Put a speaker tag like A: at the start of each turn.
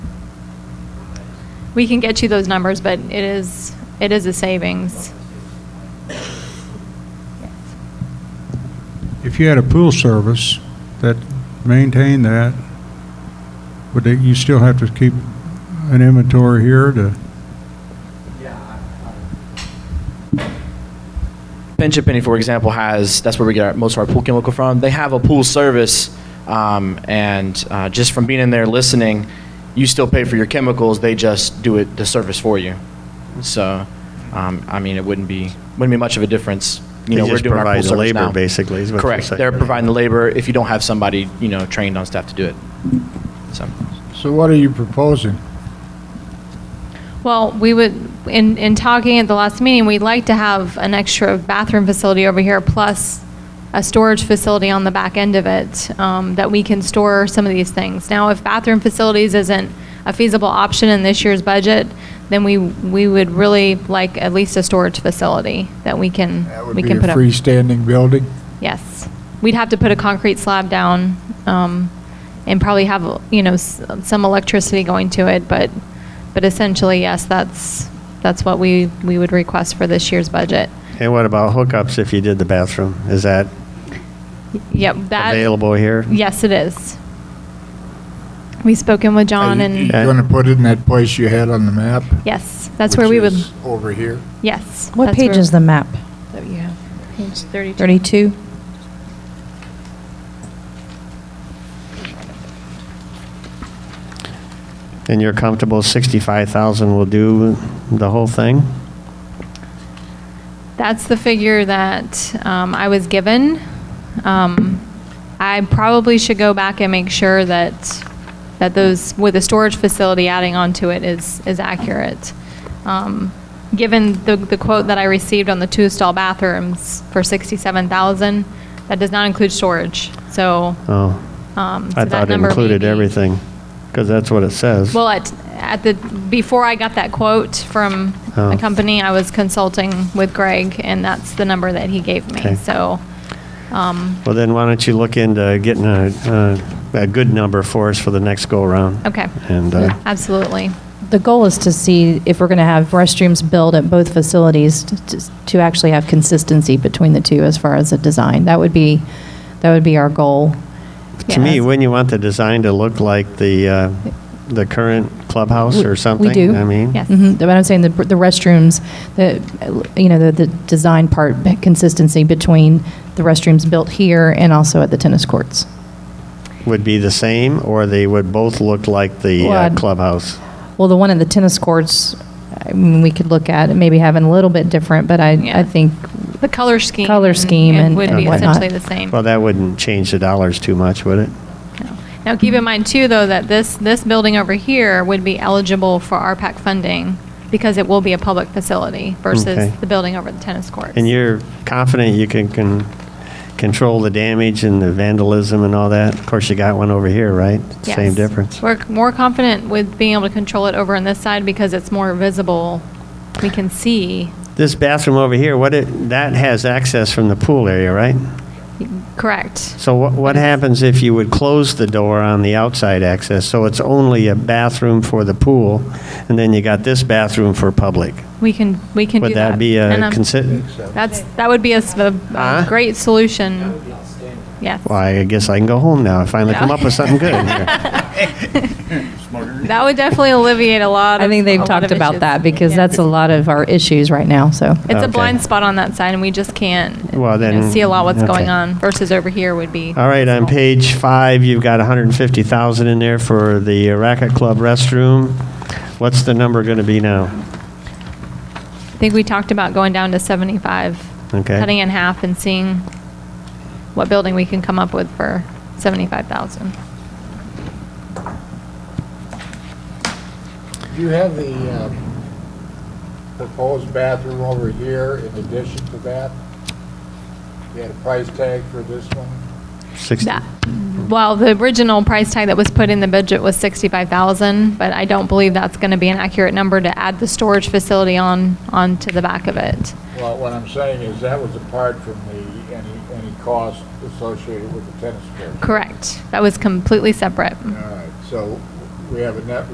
A: We can get you those numbers, but it is, it is a savings.
B: If you had a pool service that maintained that, would they- you still have to keep an inventory here to,
C: Pension Penny, for example, has that's where we get our, most of our pool chemical from. They have a pool service, um, and uh, just from being in there listening, you still pay for your chemicals. They just do it the service for you. So, um, I mean, it wouldn't be wouldn't be much of a difference. You
D: They
C: know, we're
D: just
C: doing our
D: provide
C: pool
D: the
C: service
D: labor,
C: now.
D: basically, is what you're
C: Correct.
D: saying.
C: They're providing the labor if you don't have somebody you know trained on staff to do it. So,
E: So what are you proposing?
A: Well, we would, in, in talking at the last meeting, we'd like to have an extra bathroom facility over here, plus a storage facility on the back end of it, um, that we can store some of these things. Now, if bathroom facilities isn't a feasible option in this year's budget, then we, we would really like at least a storage facility that we can,
E: That would
A: we
E: be
A: can
E: a
A: put up.
E: freestanding building?
A: Yes. We'd have to put a concrete slab down um, and probably have, you know, s- some electricity going to it, but, but essentially, yes, that's, that's what we, we would request for this year's budget.
D: And what about hookups if you did the bathroom? Is that
A: Yep, that.
D: available here?
A: Yes, it is. We've spoken with John
E: You
A: and,
D: yeah.
E: gonna put it in that place you had on the map?
A: yes, that's where we
E: which
A: would,
E: is Over here?
A: yes.
F: What
A: that's
F: page
A: where-
F: is the map that you have?
A: Page 32.
F: 32?
D: And you're comfortable 65,000 will do the whole thing?
A: That's the figure that um, I was given. Um, I probably should go back and make sure that, that those, with the storage facility adding on to it is, is accurate. Um, Given the, the quote that I received on the two stall bathrooms for 67,000, that does not include storage, so.
D: Oh,
A: um, so
D: I
A: that
D: thought it
A: number may
D: included
A: be-
D: everything, because that's what it says.
A: well, at, at the, before I got that quote from
D: Oh.
A: a company, I was consulting with Greg, and that's the number that he gave me,
D: Okay.
A: so. um,
D: Well, then why don't you look into getting a, a, a good number for us for the next go-around?
A: Okay.
D: And, uh,
A: Absolutely.
F: The goal is to see if we're going to have restrooms built at both facilities to- to to actually have consistency between the two as far as the design. That would be, that would be our goal.
D: to me,
F: Yes.
D: wouldn't you want the design to look like the, uh, the current clubhouse or something?
F: do.
D: I mean?
A: Yes.
F: Mhm, But I'm saying the the restrooms, the, you know, the, the design part, consistency between the restrooms built here and also at the tennis courts.
D: Would be the same, or they would both look like the
F: Well,
D: uh,
F: I'd-
D: clubhouse?
F: Well, the one at the tennis courts, I mean, we could look at, maybe having a little bit different, but I,
A: Yeah.
F: I think,
A: The color scheme.
F: Color scheme
A: it
F: and-
A: Would
F: and
A: be
F: whatnot.
A: essentially the same.
D: Well, that wouldn't change the dollars too much, would it?
A: No. Now, keep in mind too, though, that this, this building over here would be eligible for RPAC funding because it will be a public facility versus
D: Okay.
A: the building over the tennis courts.
D: And you're confident you can, can control the damage and the vandalism and all that? Of course, you got one over here, right? Same
A: Yes.
D: difference.
A: We're more confident with being able to control it over on this side because it's more visible. We can see,
D: This bathroom over here, what it, that has access from the pool area, right?
A: correct?
D: So what, what happens if you would close the door on the outside access? So it's only a bathroom for the pool, and then you got this bathroom for public?
A: We can, we can do that.
D: Would that be
A: And
D: a
A: I'm-
D: consider?
A: That's, that would be a, s- a-
D: Huh?
A: a great solution. Yes.
D: Well, I guess I can go home now. I finally come up with something good here.
A: That would definitely alleviate a lot.
F: I think
A: of- a
F: they've
A: lot
F: talked
A: of
F: about
A: issues.
F: that because
A: Yeah.
F: that's a lot of our issues right now, so.
A: It's a
D: Okay.
A: blind spot on that side, and we just can't
D: Well,
A: you know,
D: then-
A: see a lot what's
D: okay.
A: going on. Versus over here would be.
D: All right, on
A: small.
D: page five, you've got 150,000 in there for the Racket Club restroom. What's the number going to be now?
A: I think we talked about going down to seventy-five,
D: Okay.
A: cutting in half, and seeing what building we can come up with for seventy-five thousand.
E: Do you have the uh, proposed bathroom over here in addition to that? You had a price tag for this one?
D: Six-
A: That, well, the original price tag that was put in the budget was sixty-five thousand, but I don't believe that's going to be an accurate number to add the storage facility on onto the back of it.
E: Well, what I'm saying is that was apart from the, any, any cost associated with the tennis court.
A: Correct. That was completely separate.
E: All right, so we have a net